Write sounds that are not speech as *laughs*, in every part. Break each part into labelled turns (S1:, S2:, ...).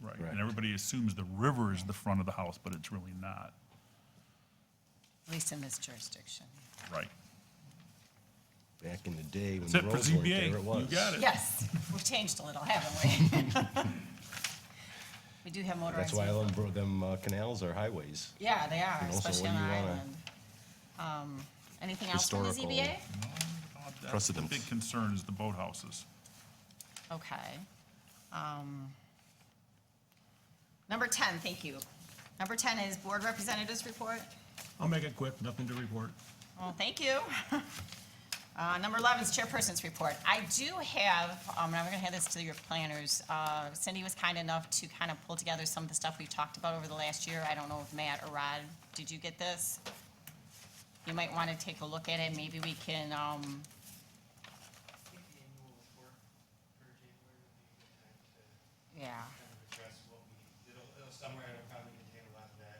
S1: right?
S2: Right.
S1: And everybody assumes the river is the front of the house, but it's really not,
S3: at least in this jurisdiction.
S1: right?
S2: Back in the day when
S1: That's it for
S2: roads weren't there,
S1: ZBA.
S2: it was.
S1: You got it.
S3: Yes, we've changed a little, haven't we?
S2: *laughs*
S3: We do have motorized.
S2: That's why I
S3: vehicles.
S2: love bro- them uh, canals or highways.
S3: Yeah, they are,
S2: And also
S3: especially on
S2: when
S3: our
S2: you wanna-
S3: island. Um, Anything else from the
S2: Historical.
S3: ZBA?
S1: That's the
S2: Precedence.
S1: Big concern is the boathouses.
S3: Okay. Um, Number 10, thank you. Number 10 is board representatives report.
S4: I'll make it quick, nothing to report.
S3: Well, thank you. *laughs* Uh, Number 11 is chairperson's report. I do have, um, and I'm going to hand this to your planners. Uh, Cindy was kind enough to kind of pull together some of the stuff we've talked about over the last year. I don't know if Matt or Rod, did you get this? You might want to take a look at it. Maybe we can, um,
S5: think the annual report for January would be a good time to
S3: yeah,
S5: kind of address what we, it'll, it'll somewhere, it'll probably contain a lot of that.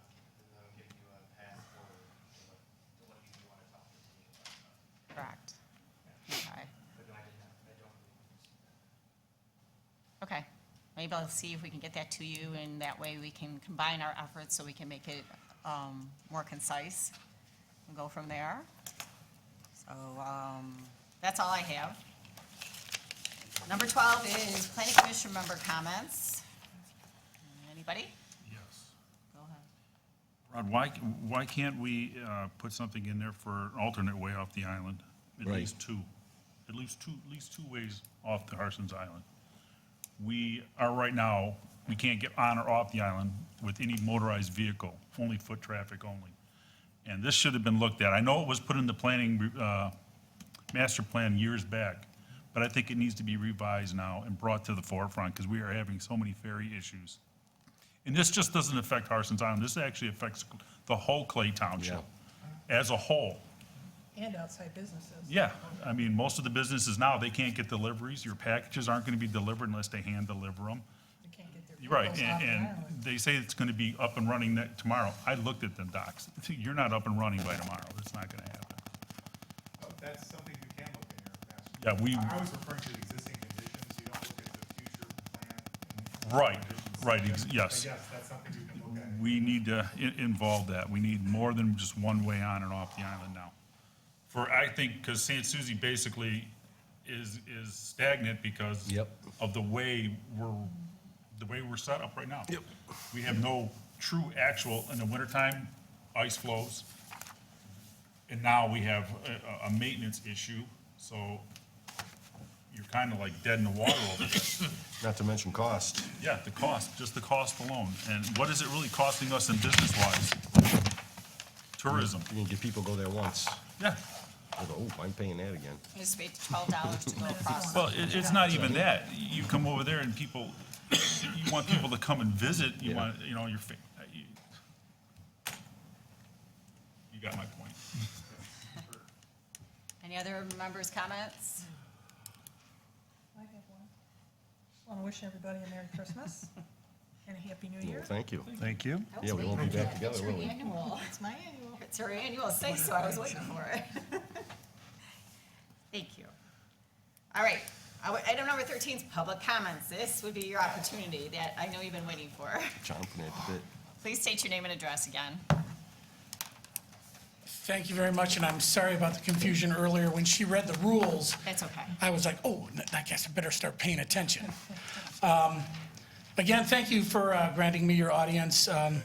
S5: um, And that'll give you a path forward to what, to what you want to talk to me about.
S3: correct. Okay.
S5: But no, I did not, I don't believe it's.
S3: Okay, maybe I'll see if we can get that to you, and that way we can combine our efforts so we can make it um, more concise and go from there. So, um, that's all I have. Number 12 is planning commission member comments. Anybody?
S1: Yes.
S3: Go ahead.
S1: Rod, why, why can't we uh, put something in there for an alternate way off the island? At
S2: Right.
S1: least two, at least two, at least two ways off the Harson's Island. We are right now, we can't get on or off the island with any motorized vehicle, only foot traffic only. And this should have been looked at. I know it was put in the planning, uh, master plan years back, but I think it needs to be revised now and brought to the forefront because we are having so many ferry issues. And this just doesn't affect Harson's Island, this actually affects the whole Clay Township as a whole.
S6: And outside businesses.
S1: Yeah, I mean, most of the businesses now, they can't get deliveries, your packages aren't gonna be delivered unless they hand deliver them.
S6: They can't get their
S1: You're Right,
S6: vehicles
S1: and,
S6: off the
S1: and
S6: island.
S1: they say it's gonna be up and running ne- tomorrow. I looked at them docs, you're not up and running by tomorrow, it's not gonna happen.
S7: Oh, That's something you can look at here,
S1: Yeah,
S7: Master.
S1: we-
S7: I I was referring to the existing conditions, you don't look at the future plan. and
S1: Right,
S7: conditions.
S1: right, ex- yes.
S7: But yes, that's something you can look at.
S1: we need to i- involve that. We need more than just one way on and off the island now. For, I think, because St. Susie basically is, is stagnant because
S2: Yep.
S1: of the way we're, the way we're set up right now. Yep. We have no true actual, in the wintertime, ice flows. And now we have a, a- a maintenance issue, so you're kind of like dead in the water over there.
S2: Not to mention cost.
S1: Yeah, the cost, just the cost alone. And what is it really costing us in business wise? Tourism.
S2: You can get people go there once.
S1: Yeah.
S2: They go, oh, I'm paying that again.
S3: You just paid $12 to go across.
S1: Well, it, it's not even that. You come over there and people, you want people to come and visit. You
S2: Yeah.
S1: want, you know, your, fa- you you got my point.
S3: Any other members' comments?
S6: I have one. Want to wish everybody a Merry
S1: *laughs*
S6: Christmas and a Happy New
S2: Well,
S6: Year.
S2: thank you.
S1: Thank you.
S2: Yeah, we won't be back together, will we?
S3: Annual.
S6: It's my annual.
S3: *laughs* It's her annual say so, I was waiting for it. *laughs* Thank you. All right, I would- item number thirteen is public comments. This would be your opportunity that I know you've been waiting for. *laughs*
S2: Chomping at the bit.
S3: Please state your name and address again.
S8: Thank you very much, and I'm sorry about the confusion earlier. When she read the rules,
S3: That's okay.
S8: I was like, oh, n- I guess I better start paying attention. *laughs* Um, Again, thank you for uh, granting me your audience. Um,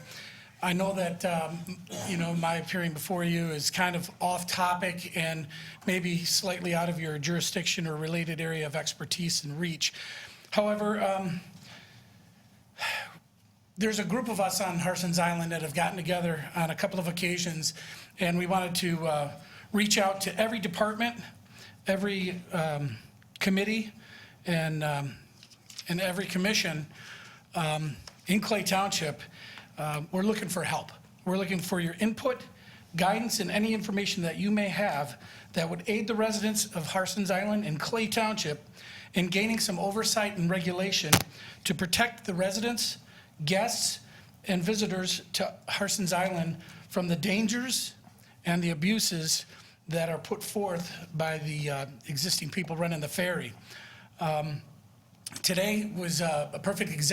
S8: I know that, um, you know, my appearing before you is kind of off topic and maybe slightly out of your jurisdiction or related area of expertise and reach. However, um, there's a group of us on Harson's Island that have gotten together on a couple of occasions, and we wanted to uh, reach out to every department, every um, committee, and, um, and every commission in Clay Township, um, we're looking for help. We're looking for your input, guidance, and any information that you may have that would aid the residents of Harson's Island and Clay Township in gaining some oversight and regulation to protect the residents, guests, and visitors to Harson's Island from the dangers and the abuses that are put forth by the uh, existing people running the ferry. Um, Today was uh, a perfect example